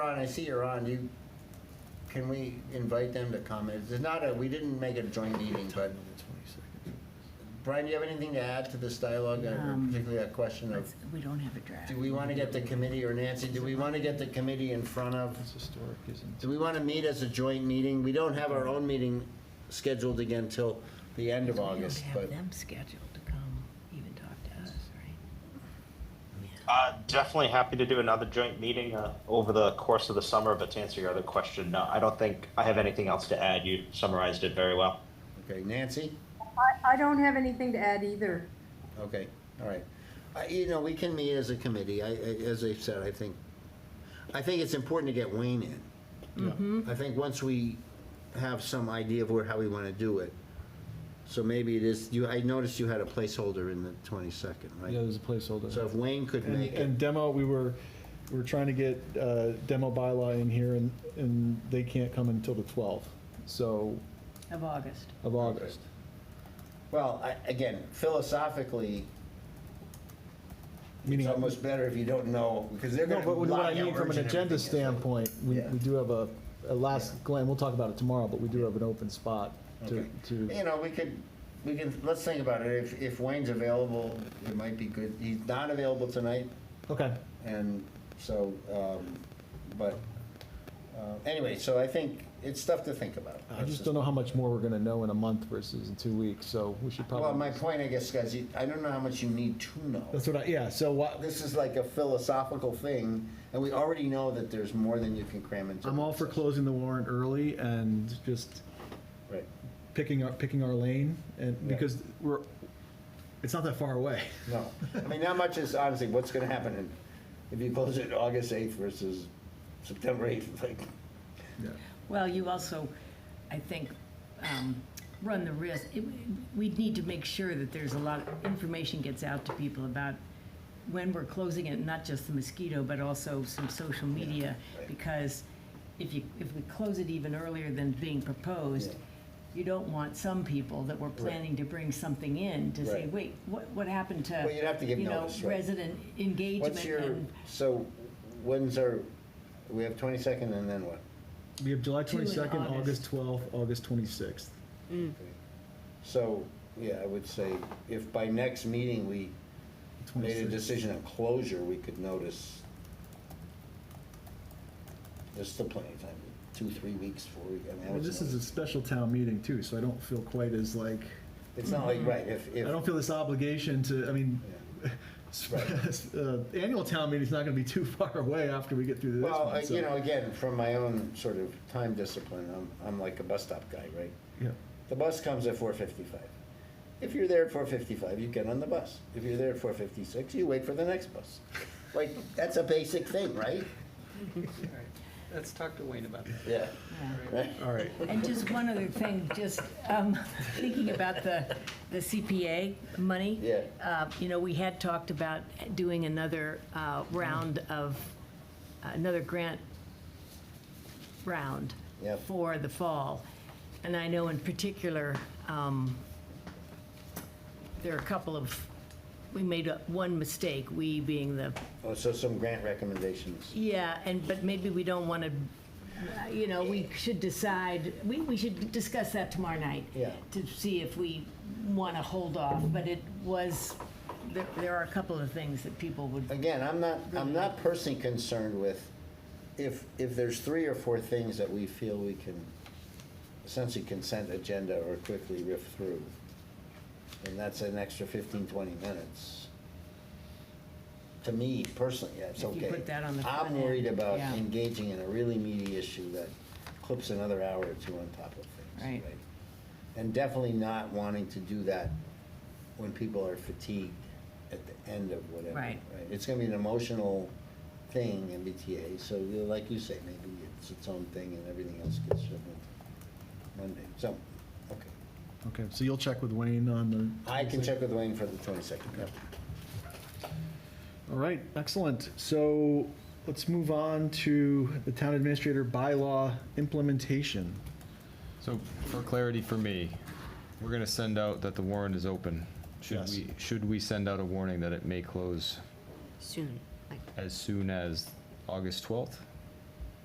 Ron, I see you're on, you, can we invite them to comment? It's not a, we didn't make it a joint meeting, but, Brian, do you have anything to add to this dialogue, uh, Um, particularly that question of, Let's- We don't have a draft. do we want to get the committee, or Nancy, do we want to get the committee in front of, It's historic, isn't do we want to meet as a joint meeting? We don't have our own meeting scheduled again till the end of August, We but, don't have them scheduled to come even talk to us, right? Uh, definitely happy to do another joint meeting uh, over the course of the summer. But to answer your other question, no, I don't think I have anything else to add. You summarized it very well. okay, Nancy? I, I don't have anything to add either. Okay, all right. I- You know, we can meet as a committee, I, I- as I've said, I think, I think it's important to get Wayne in. I think once we have some idea of where, how we want to do it, so maybe it is, you, I noticed you had a placeholder in the 22nd, it? Yeah, right? there's a placeholder. So if Wayne could And, make it, and demo, we were, we were trying to get uh, demo bylaw in here, and, and they can't come until the 12th, so, Of August. of August. well, I, again, philosophically, it's Meaning- almost better if you don't know, because they're No, going to but block what I out mean from an urgent agenda everything is. standpoint, we, Yeah. we do have a, a last glance, we'll talk about it tomorrow, but we do have an open spot to, Okay. to. You know, we could, we can, let's think about it. If, if Wayne's available, it might be good. He's not available tonight, Okay, and so, um, but, uh, anyway, so I think it's stuff to think about. I just don't know how much more we're gonna know in a month versus in two weeks, so we should probably. Well, my point, I guess, guys, you- I don't know how much you need to know. That's what I, yeah, so what, This is like a philosophical thing, and we already know that there's more than you can cram into. I'm all for this. closing the warrant early and just Right. picking our, picking our lane, and, Yeah. because we're, it's not that far away. No, I mean, not much is, honestly, what's gonna happen in- if you close it August eighth versus September eighth, like, Well, you also, I think, um, run the risk, it- we'd need to make sure that there's a lot, of information gets out to people about when we're closing it, not just the mosquito, but also some social media, right. because if you, if we close it even earlier than being proposed, Yeah. you don't want some people that were planning to bring something in to say, Right. wait, what, what happened to, Well, you'd have to give you know, notice, right. resident what's engagement your, and so, when's our, we have twenty-second and then what? We have July Two in twenty-second, August August. twelfth, August twenty-sixth. Hmm. So, yeah, I would say, if by next meeting we made a decision on closure, we could notice. There's still plenty of time, two, three weeks, four, weeks, I mean, I Well, would this is a notice. special town meeting too, so I don't feel quite as like, It's not like, right, if, I if, don't feel this obligation to, I mean, Yeah. sp- Right. uh, annual town meeting's not gonna be too far away after we get through this well, I- one, so. you know, again, from my own sort of time discipline, I'm, I'm like a bus stop guy, right? Yeah, The bus comes at four fifty-five. If you're there at four fifty-five, you get on the bus. If you're there at four fifty-six, you wait for the next bus. Like, that's a basic thing, right? All right. Let's talk to Wayne about that. Yeah. Yeah. Right? all right. And just one other thing, just um, thinking about the the CPA money. Yeah. Uh, You know, we had talked about doing another uh, round of, another grant round Yep. for the fall. And I know in particular, um, there are a couple of, we made a- one mistake, we being the Oh, so some grant recommendations. yeah, and, but maybe we don't want to, you know, we should decide, we, we should discuss that tomorrow night. Yeah. To see if we want to hold off, but it was, there, there are a couple of things that people would, Again, I'm not, I'm not personally concerned with if, if there's three or four things that we feel we can essentially consent agenda or quickly riff through, and that's an extra 15, 20 minutes. To me personally, that's If okay. you put that on the front I'm end, worried about yeah. engaging in a really meaty issue that clips another hour or two on top of things. Right. And definitely not wanting to do that when people are fatigued at the end of whatever. Right. It's gonna be an emotional thing, MBTA, so you know, like you say, maybe it's its own thing and everything else gets shoved into Monday. So, okay. Okay, so you'll check with Wayne on the I can check with Wayne for the twenty-second, yeah. All right, excellent. So let's move on to the town administrator bylaw implementation. So for clarity for me, we're gonna send out that the warrant is open. Should Yes. we, should we send out a warning that it may close soon, like as soon as August twelfth?